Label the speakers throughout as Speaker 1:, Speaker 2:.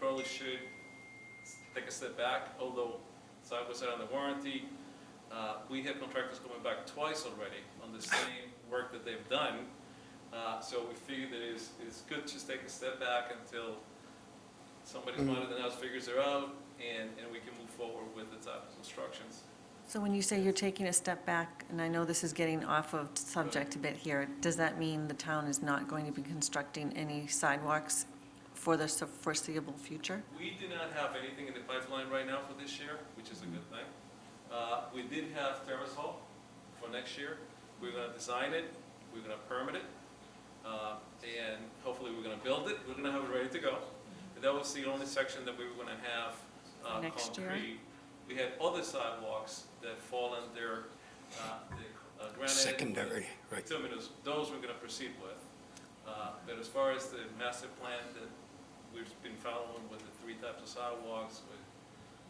Speaker 1: really should s- take a step back, although side by side on the warranty, uh, we have contractors coming back twice already on the same work that they've done. Uh, So we figured that it's, it's good to just take a step back until somebody smarter than us figures it out, and, and we can move forward with the type of instructions.
Speaker 2: So when you say you're taking a step back, and I know this is getting off of subject a bit here, does that mean the town is not going to be constructing any sidewalks for the foreseeable future?
Speaker 1: We do not have anything in the pipeline right now for this year, which is a good thing. Uh, We did have Terrace Hall for next year. We're going to design it, we're going to permit it, uh, and hopefully we're going to build it. We're going to have it ready to go. And That was the only section that we were going to have uh,
Speaker 2: Next year?
Speaker 1: concrete. We had other sidewalks that fall under uh, the uh, granite.
Speaker 3: Secondary, right.
Speaker 1: Terminus, those we're gonna proceed with. Uh, But as far as the master plan that we've been following with the three types of sidewalks, with,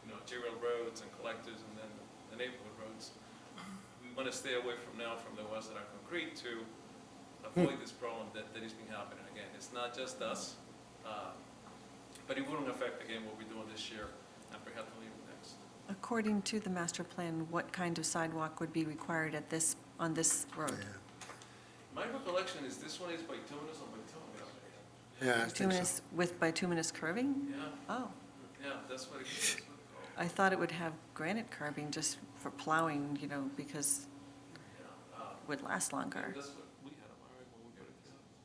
Speaker 1: you know, arterial roads and collectors and then the neighborhood roads, we wanna stay away from now from the ones that are concrete to avoid this problem that, that is being happening again. It's not just us, uh, but it wouldn't affect again what we're doing this year and perhaps even next.
Speaker 2: According to the master plan, what kind of sidewalk would be required at this, on this road?
Speaker 1: My recollection is this one is by Tunis or by Tunis.
Speaker 3: Yeah, I think so.
Speaker 2: Bituminous, with bituminous curving?
Speaker 1: Yeah,
Speaker 2: Oh,
Speaker 1: yeah, that's what it is. That's what it's called.
Speaker 2: I thought it would have granite curving just for plowing, you know, because
Speaker 1: Yeah, uh,
Speaker 2: it would last longer.
Speaker 1: That's what we had, all right, well,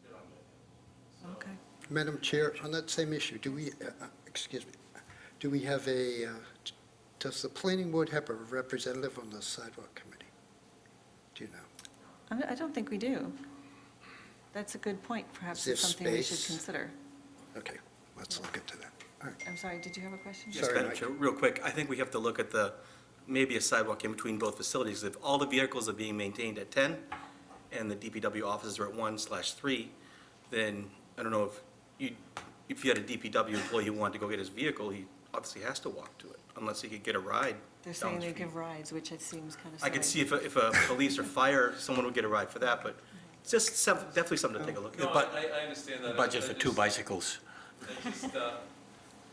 Speaker 1: we got it. So-
Speaker 2: Okay.
Speaker 3: Madam Chair, on that same issue, do we, uh, uh, excuse me, do we have a, uh, d- does the planning board have a representative on the sidewalk committee? Do you know?
Speaker 2: I'm- I don't think we do. That's a good point. Perhaps
Speaker 3: Is there
Speaker 2: it's something we should
Speaker 3: space?
Speaker 2: consider.
Speaker 3: Okay, let's look into that. All right.
Speaker 2: I'm sorry, did you have a question?
Speaker 3: Yes.
Speaker 4: Yes,
Speaker 3: Sorry,
Speaker 4: Madam
Speaker 3: Mike.
Speaker 4: Chair, real quick, I think we have to look at the, maybe a sidewalk in between both facilities. If all the vehicles are being maintained at 10 and the DPW offices are at 1 slash 3, then I don't know if you, if you had a DPW employee who wanted to go get his vehicle, he obviously has to walk to it unless he could get a ride.
Speaker 2: They're
Speaker 4: down
Speaker 2: saying
Speaker 4: the
Speaker 2: they
Speaker 4: street.
Speaker 2: give rides, which it seems kind of
Speaker 4: I
Speaker 2: silly.
Speaker 4: could see if, a- if a police or fire, someone would get a ride for that, but it's just some, definitely something to take a look at.
Speaker 1: No,
Speaker 5: bu-
Speaker 1: I, I- I understand that. I-
Speaker 5: Budget
Speaker 1: I
Speaker 5: for
Speaker 1: just-
Speaker 5: two bicycles.
Speaker 1: I just, uh,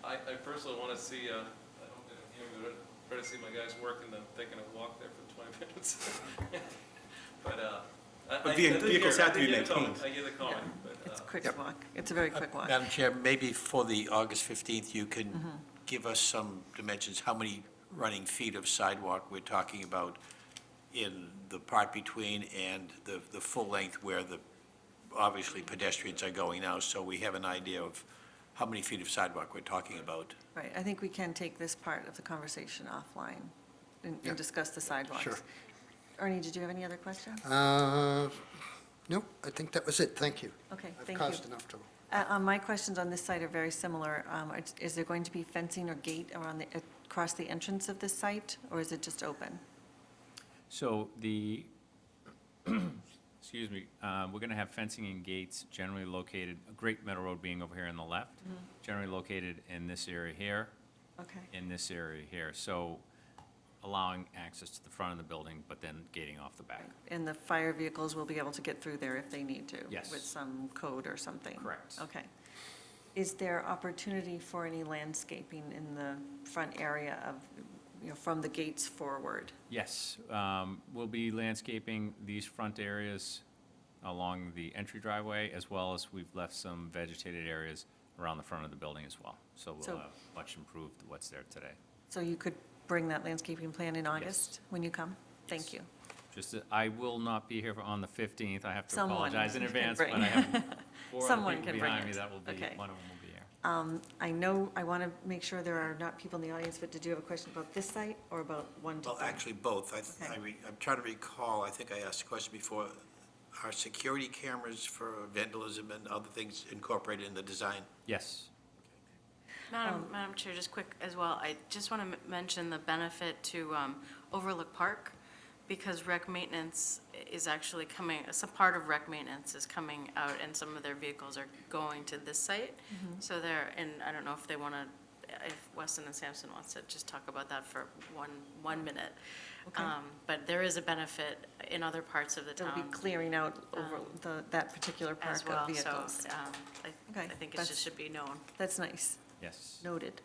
Speaker 1: I, I personally want to see, uh, I don't get to hear, but I try to see my guys working, then taking a walk there for twenty minutes. But, uh. I-
Speaker 4: But
Speaker 1: I- I
Speaker 4: vehi-
Speaker 1: did hear-
Speaker 4: vehicles have to
Speaker 1: I did
Speaker 4: be
Speaker 1: hear the comment,
Speaker 4: maintained.
Speaker 1: I get the comment, but,
Speaker 2: It's a
Speaker 1: uh,
Speaker 2: quick
Speaker 3: Yep.
Speaker 2: walk. It's a very quick walk.
Speaker 5: Madam Chair, maybe for the August 15th, you could give us some dimensions, how many running feet of sidewalk we're talking about in the part between and the, the full length where the, obviously pedestrians are going now, so we have an idea of how many feet of sidewalk we're talking about.
Speaker 2: Right, I think we can take this part of the conversation offline and
Speaker 3: Yeah.
Speaker 2: and discuss the sidewalks.
Speaker 3: Sure.
Speaker 2: Ernie, did you have any other questions?
Speaker 3: Uh, No, I think that was it, thank you.
Speaker 2: Okay,
Speaker 3: I've
Speaker 2: thank you.
Speaker 3: caused enough trouble.
Speaker 2: Uh, uh, My questions on this site are very similar. Um, are- Is there going to be fencing or gate around the, across the entrance of this site, or is it just open?
Speaker 6: So the, excuse me, uh, we're going to have fencing and gates generally located, Great Meadow Road being over here on the left, generally located in this area here,
Speaker 2: Okay,
Speaker 6: in this area here. So allowing access to the front of the building, but then gating off the back.
Speaker 2: and the fire vehicles will be able to get through there if they need to?
Speaker 6: Yes.
Speaker 2: With some code or something?
Speaker 6: Correct.
Speaker 2: Okay. Is there opportunity for any landscaping in the front area of, you know, from the gates forward?
Speaker 6: Yes, um, we'll be landscaping these front areas along the entry driveway, as well as we've left some vegetated areas around the front of the building as well. So
Speaker 2: So-
Speaker 6: we'll have much improved what's there today.
Speaker 2: So you could bring that landscaping plan in August when you come? Thank you.
Speaker 6: Just, that I will not be here for- on the 15th. I have to
Speaker 2: Someone
Speaker 6: apologize
Speaker 2: can
Speaker 6: in advance, but
Speaker 2: bring-
Speaker 6: I have four other
Speaker 2: Someone
Speaker 6: people
Speaker 2: can bring
Speaker 6: behind me
Speaker 2: it.
Speaker 6: that will be,
Speaker 2: Okay.
Speaker 6: one of them will be here.
Speaker 2: I know, I want to make sure there are not people in the audience, but did you have a question about this site or about one to
Speaker 5: Well,
Speaker 2: three?
Speaker 5: actually, both. I, th-
Speaker 2: Okay.
Speaker 5: I re- I'm trying to recall, I think I asked the question before, are security cameras for vandalism and other things incorporated in the design?
Speaker 6: Yes.
Speaker 7: Madam,
Speaker 2: Um,
Speaker 7: Madam Chair, just quick as well, I just want to mention the benefit to um, Overlook Park, because rec maintenance is actually coming, some part of rec maintenance is coming out, and some of their vehicles are going to this site.
Speaker 2: Mm-hmm.
Speaker 7: So they're, and I don't know if they want to, if Weston and Sampson wants to just talk about that for one, one minute.
Speaker 2: Okay.
Speaker 7: Um, But there is a benefit in other parts of the
Speaker 2: They'll
Speaker 7: town
Speaker 2: be clearing out over the, that particular
Speaker 7: Um, as
Speaker 2: park
Speaker 7: well,
Speaker 2: of
Speaker 7: so
Speaker 2: vehicles.
Speaker 7: um, I I
Speaker 2: Okay,
Speaker 7: think it
Speaker 2: that's-
Speaker 7: just should be known.
Speaker 2: That's nice.
Speaker 6: Yes.
Speaker 2: Noted.